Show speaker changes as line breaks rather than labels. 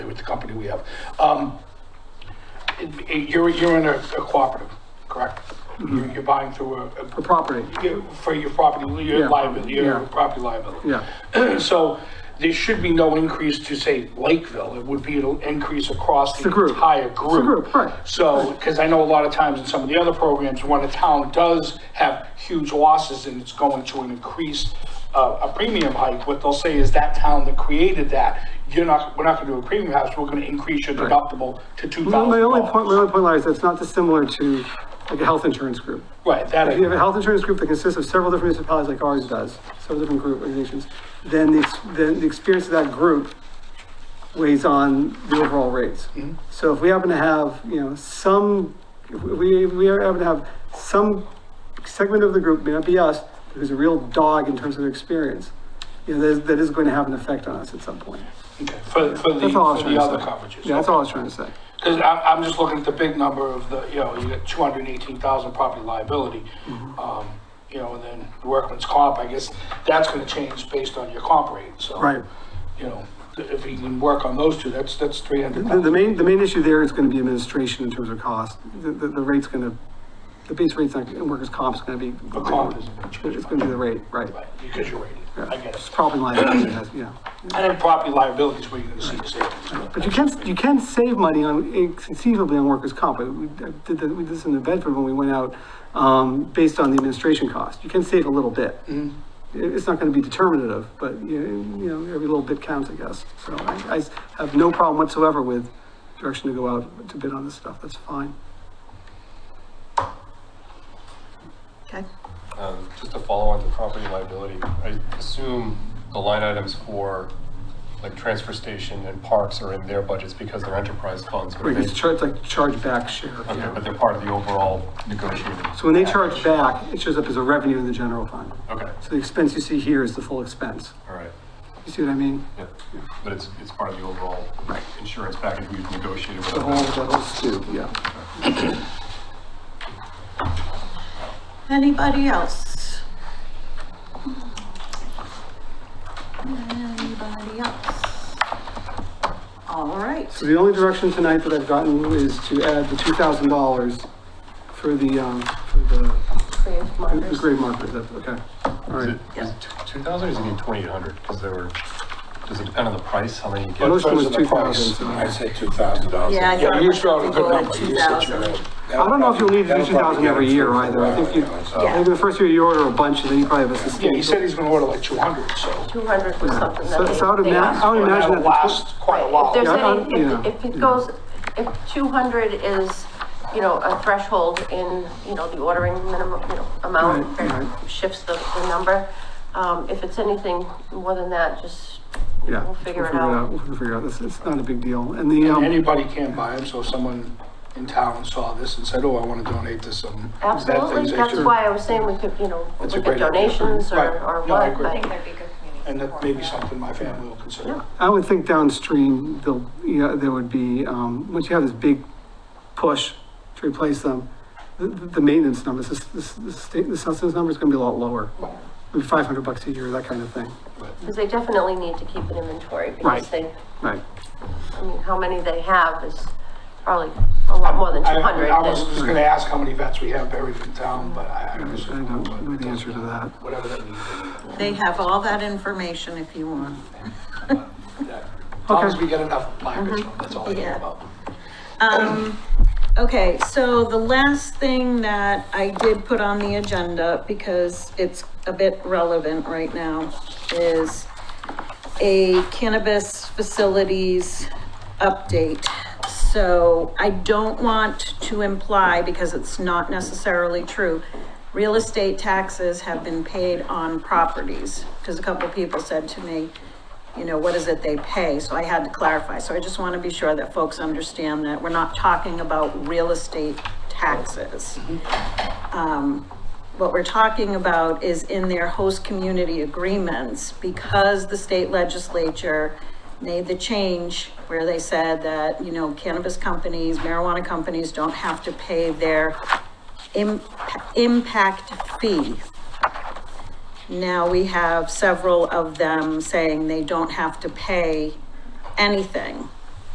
the company we have. Um, it- it- You're, you're in a a cooperative, correct? You're you're buying through a,
The
a-
property,
you- for your property,
Yeah,
your liability, your
yeah.
property liability.
yeah.
So there should be no increase to, say, Lakeville. It would be an increase across the
The group.
entire
It's the
group.
group, right.
So, because I know a lot of times in some of the other programs, when a town does have huge losses and it's going to an increased, uh, a premium hike, what they'll say is that town that created that, you're not, we're not gonna do a premium house, we're gonna increase your deductible to two
My
thousand
my only point, my
dollars.
only point lies, that's not dissimilar to like a health insurance group.
Right, that,
If you have a
I-
health insurance group that consists of several different municipalities like ours does, several different group organizations, then the, ex- then the experience of that group weighs on the overall rates. So if we happen to have, you know, some, if we, we happen to have some segment of the group, may not be us, but who's a real dog in terms of their experience, you know, that is, that is going to have an effect on us at some point.
okay, for, for the,
That's all I was
for
trying
the other
to say.
coverages.
Yeah, that's all I was trying to say.
Because I'm, I'm just looking at the big number of the, you know, you got two hundred and eighteen thousand property liability.
Mm-hmm.
Um, you know, and then workman's comp, I guess, that's gonna change based on your comp rate, so.
Right.
You know, th- if you can work on those two, that's, that's three hundred
The, the
thousand.
main, the main issue there is gonna be administration in terms of cost. The, the, the rate's gonna, the base rate's not, and workers' comp's gonna be.
The comp isn't gonna change
It's gonna be the rate, right.
Right, because you're rated, I get
It's
it.
probably liability, it has- yeah.
And then property liability is where you're gonna see the savings.
But you can, you can save money on, conceivably on workers' comp. We did that- we did this in New Bedford when we went out, um, based on the administration cost. You can save a little bit. It- It's not gonna be determinative, but you, you know, every little bit counts, I guess. So I, I s- have no problem whatsoever with direction to go out to bid on this stuff. That's fine.
Okay,
Um, Just to follow on to property liability, I assume the line items for like transfer station and parks are in their budgets because they're enterprise funds. but
Right,
they-
it's char- it's like charge back share, you
Okay,
know.
but they're part of the overall negotiated.
So when they charge back, it shows up as a revenue in the general fund.
Okay,
So the expense you see here is the full expense.
all right,
You see what I mean?
yeah, but it's, it's part of the overall
Right.
insurance package we've negotiated with.
The whole, the whole stew, yeah.
anybody else? Anybody else? All right,
So the only direction tonight that I've gotten is to add the two thousand dollars for the, um, for the,
Grave
the
markers.
grade marker, that's, okay. All
Is
right.
it, is it two thousand or is it twenty-eight hundred? Because there were, does it depend on the price, how many you
Well, those
get?
two was
Because of
two
the price,
thousand, so.
I said two thousand dollars.
Yeah, I
Yeah,
thought
you
it was
showed a good
going
number.
two thousand.
I don't know if you'll need to do two thousand every year either. I think you,
Yeah.
maybe the first year you order a bunch and then you probably have a
Yeah, he
sustained.
said he's gonna order like two hundred, so.
Two hundred was something
So,
that
so I would
they, they
imagine, I
asked.
would imagine
That'll
that. the tw-
last quite a while.
If there's
Yeah, I- I-
any,
yeah.
if, if it goes, if two hundred is, you know, a threshold in, you know, the ordering minimum, you know, amount,
Right,
that
right.
shifts the, the number. Um, if it's anything more than that, just,
Yeah.
we'll figure it out.
We'll figure it out. It's, it's not a big deal. And the, um.
Anybody can buy them, so if someone in town saw this and said, oh, I wanna donate to some. bad
Absolutely,
things," they
that's
should.
why I was saying we could, you know,
That's a
look at
great idea.
donations or,
Right.
or
No, I
what,
agree.
but.
I think that'd be good community.
And that
support
may
for
be
that.
something my family will consider.
I would think downstream, they'll, you know, there would be, um, once you have this big push to replace them, the, the maintenance numbers, this, this, the state, the census number is gonna be a lot lower. Maybe five hundred bucks a year, that kind of thing.
Because they definitely need to keep an inventory
Right.
because they,
Right.
I mean, how many they have is probably a lot more than
I-
two hundred.
I was just gonna ask how many vets we have buried in town, but I, I
I
was,
don't know the answer to that.
whatever that means. I
They have all that information if you want.
mean, that- As long as we get enough placards,
Mm-hmm.
that's all I care
Yeah.
about.
Um, okay, so the last thing that I did put on the agenda, because it's a bit relevant right now, is a cannabis facilities update. So I don't want to imply, because it's not necessarily true, real estate taxes have been paid on properties. Because a couple people said to me, you know, what is it they pay? So I had to clarify. So I just want to be sure that folks understand that we're not talking about real estate taxes. Um, What we're talking about is in their host community agreements, because the state legislature made the change where they said that, you know, cannabis companies, marijuana companies don't have to pay their im- impact fee. Now we have several of them saying they don't have to pay anything.